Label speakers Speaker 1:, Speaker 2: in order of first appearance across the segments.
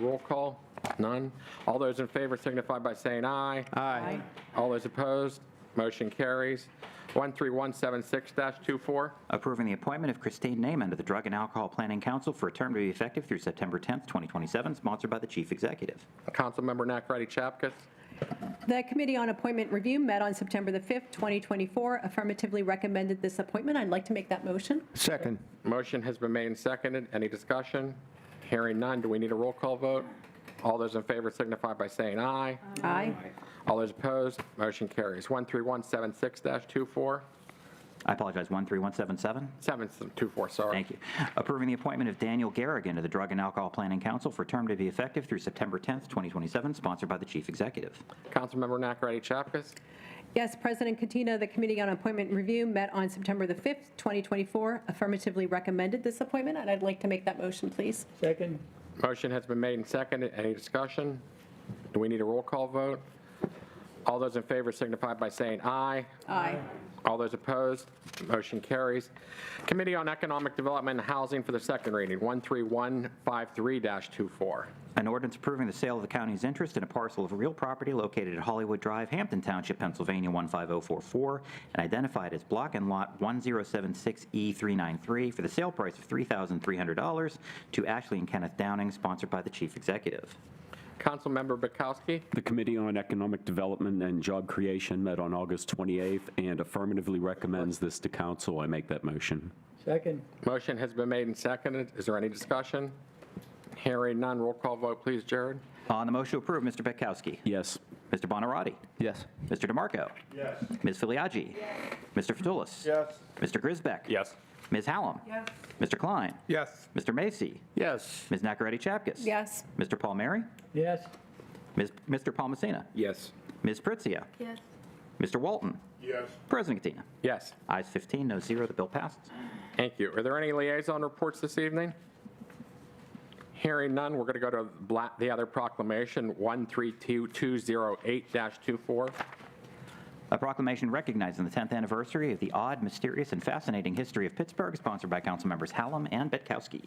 Speaker 1: Roll call? None? All those in favor signify by saying aye.
Speaker 2: Aye.
Speaker 1: All those opposed? Motion carries. 13176-24,
Speaker 3: Approving the appointment of Christine Naaman to the Drug and Alcohol Planning Council for a term to be effective through September 10th, 2027, sponsored by the Chief Executive.
Speaker 1: Councilmember Nakaradi Chapkus.
Speaker 2: The Committee on Appointment Review met on September the 5th, 2024, affirmatively recommended this appointment. I'd like to make that motion.
Speaker 4: Second.
Speaker 1: Motion has been made and seconded. Any discussion? Hearing none. Do we need a roll call vote? All those in favor signify by saying aye.
Speaker 2: Aye.
Speaker 1: All those opposed? Motion carries. 13176-24,
Speaker 3: I apologize, 13177.
Speaker 1: 724, sorry.
Speaker 3: Thank you. Approving the appointment of Daniel Garrigan to the Drug and Alcohol Planning Council for a term to be effective through September 10th, 2027, sponsored by the Chief Executive.
Speaker 1: Councilmember Nakaradi Chapkus.
Speaker 2: Yes, President Katina, the Committee on Appointment Review met on September the 5th, 2024, affirmatively recommended this appointment, and I'd like to make that motion, please.
Speaker 4: Second.
Speaker 1: Motion has been made and seconded. Any discussion? Do we need a roll call vote? All those in favor signify by saying aye.
Speaker 2: Aye.
Speaker 1: All those opposed, motion carries. Committee on Economic Development and Housing for the second reading, 13153-24.
Speaker 3: An ordinance approving the sale of the county's interest in a parcel of real property located at Hollywood Drive, Hampton Township, Pennsylvania 15044, and identified as Block and Lot E 1076E393 for the sale price of $3,300 to Ashley and Kenneth Downing, sponsored by the Chief Executive.
Speaker 1: Councilmember Bukowski,
Speaker 5: The Committee on Economic Development and Job Creation met on August 28th and affirmatively recommends this to council. I make that motion.
Speaker 4: Second.
Speaker 1: motion has been made and seconded. Is there any discussion? Hearing none, roll call vote, please, Jared.
Speaker 3: On the motion to approve, Mr. Petkowski.
Speaker 5: Yes.
Speaker 3: Mr. Bonarotti.
Speaker 4: Yes.
Speaker 3: Mr. DeMarco.
Speaker 6: Yes.
Speaker 3: Ms. Filiaggi. Mr. Fatulis.
Speaker 6: Yes.
Speaker 3: Mr. Grisbeck.
Speaker 5: Yes.
Speaker 3: Ms. Hallam. Mr. Klein.
Speaker 6: Yes.
Speaker 3: Mr. Macy.
Speaker 4: Yes.
Speaker 3: Ms. Nacarati Chapkus.
Speaker 2: Yes.
Speaker 3: Mr. Palmieri.
Speaker 4: Yes.
Speaker 3: Ms. Mr. Palmasina.
Speaker 1: Yes.
Speaker 3: Ms. Pritzia.
Speaker 2: Yes.
Speaker 3: Mr. Walton.
Speaker 6: Yes.
Speaker 3: President Katina.
Speaker 1: Yes,
Speaker 3: Ayes 15, no zero. The bill passes.
Speaker 1: thank you. Are there any liaison reports this evening? Hearing none, we're going to go to bla- the other proclamation, 132208-24.
Speaker 3: A proclamation recognizing the 10th anniversary of the odd, mysterious, and fascinating history of Pittsburgh, sponsored by council members Hallam and Betkowski.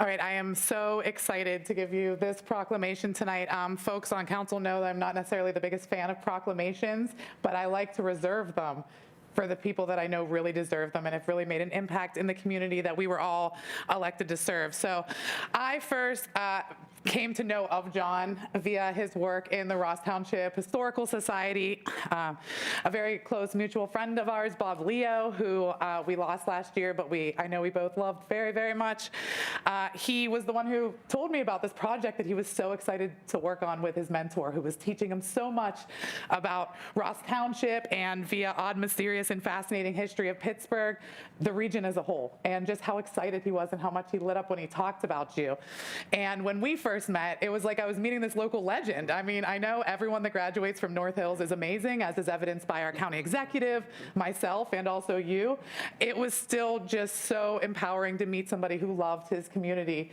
Speaker 7: All right, I am so excited to give you this proclamation tonight. Um, Folks on council know that I'm not necessarily the biggest fan of proclamations, but I like to reserve them for the people that I know really deserve them and have really made an impact in the community that we were all elected to serve. So I first uh, came to know of John via his work in the Ross Township Historical Society. Um, A very close mutual friend of ours, Bob Leo, who uh, we lost last year, but we, I know we both loved very, very much. Uh, He was the one who told me about this project that he was so excited to work on with his mentor, who was teaching him so much about Ross Township and via odd, mysterious, and fascinating history of Pittsburgh, the region as a whole, and just how excited he was and how much he lit up when he talked about you. And when we first met, it was like I was meeting this local legend. I mean, I know everyone that graduates from North Hills is amazing, as is evidenced by our county executive, myself, and also you. It was still just so empowering to meet somebody who loved his community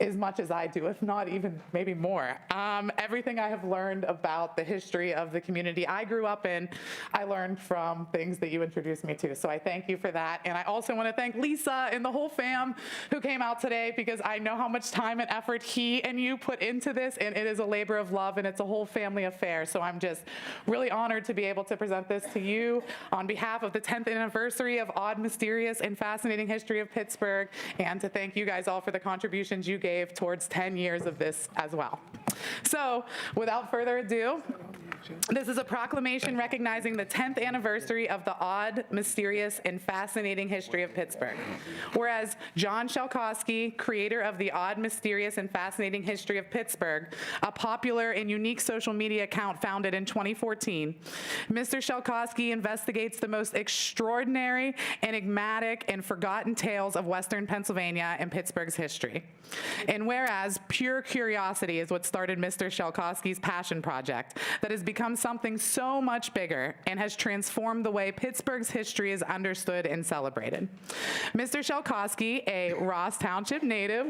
Speaker 7: as much as I do, if not even maybe more. Um, everything I have learned about the history of the community I grew up in, I learned from things that you introduced me to. So I thank you for that. And I also want to thank Lisa and the whole fam who came out today because I know how much time and effort he and you put into this. And it is a labor of love and it's a whole family affair. So I'm just really honored to be able to present this to you on behalf of the 10th anniversary of Odd, Mysterious, and Fascinating History of Pittsburgh, and to thank you guys all for the contributions you gave towards 10 years of this as well. So, without further ado, this is a proclamation recognizing the 10th anniversary of the odd, mysterious, and fascinating history of Pittsburgh. Whereas John Shalkowski, creator of the odd, mysterious, and fascinating history of Pittsburgh, a popular and unique social media account founded in 2014, Mr. Shalkowski investigates the most extraordinary, enigmatic, and forgotten tales of Western Pennsylvania and Pittsburgh's history. And whereas pure curiosity is what started Mr. Shalkowski's passion project that has become something so much bigger and has transformed the way Pittsburgh's history is understood and celebrated. Mr. Shalkowski, a Ross Township native,